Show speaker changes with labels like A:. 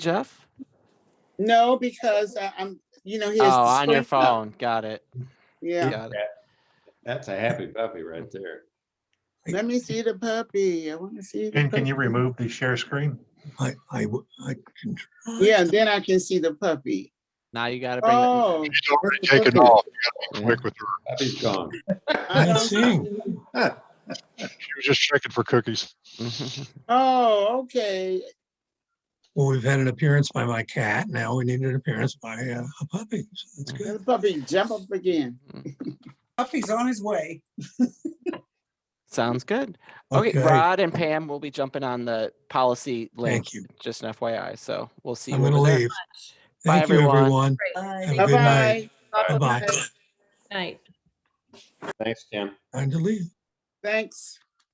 A: Jeff?
B: No, because I- I'm, you know, he has.
A: Oh, on your
B: displayed stuff.
A: phone. Got it.
B: Yeah,
A: Got it.
C: That's a happy puppy right there.
B: let me see the puppy. I want to see. the
D: Ken, can you
B: puppy.
D: remove the share screen?
E: I, I, w- I can, tr-
B: Yeah, then I can see the puppy.
A: Now you gotta bring it.
B: Oh.
F: She's already
B: That's
F: taken
B: okay.
F: off. You gotta be
A: Yeah.
F: quick with her.
C: Puppy's gone.
B: I
E: I'm
B: don't
E: seeing.
B: see-
F: She was just checking for cookies.
B: Oh, okay.
E: well, we've had an appearance by my cat. Now we need an appearance by uh, a puppy. So that's
A: Mm-hmm.
E: good.
B: The puppy jump up again.
G: Puffy's on his way.
A: Sounds good. Okay, Rod and Pam will be jumping on the policy link,
E: Thank you.
A: just an FYI, so we'll see.
E: I'm
A: you
E: going to
A: over there.
E: leave.
A: Bye,
E: Thank you,
A: everyone.
E: everyone.
G: Bye.
E: Have a good night.
B: Bye-bye.
E: Bye-bye.
G: Night.
C: Thanks, Tim.
E: Time to leave.
B: Thanks.